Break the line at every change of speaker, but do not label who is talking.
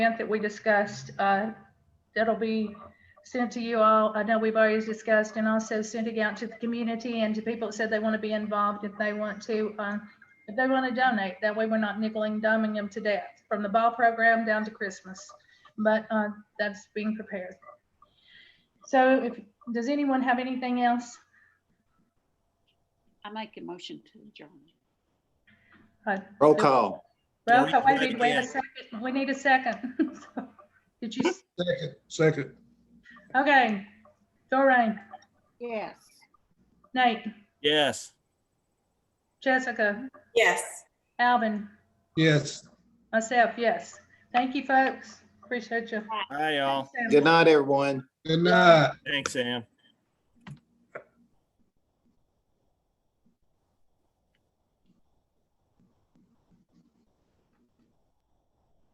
event that we discussed, uh, that'll be sent to you all. I know we've already discussed and also sending out to the community and to people that said they want to be involved if they want to, uh, if they want to donate. That way we're not nickel and diming them to death, from the ball program down to Christmas. But uh, that's being prepared. So if, does anyone have anything else?
I make a motion to adjourn.
Roll call.
Uh, Well,
Yeah,
wait, a minute, wait a
yeah.
second. We need a second. Did you, s-
Second, second,
okay. Doreen,
Yes.
Nate,
Yes.
Jessica,
Yes.
Alvin,
yes.
myself, yes. Thank you, folks. Appreciate you.
Hi, y'all.
Thanks, Sam.
Good night, everyone.
Good night.
Thanks, Sam.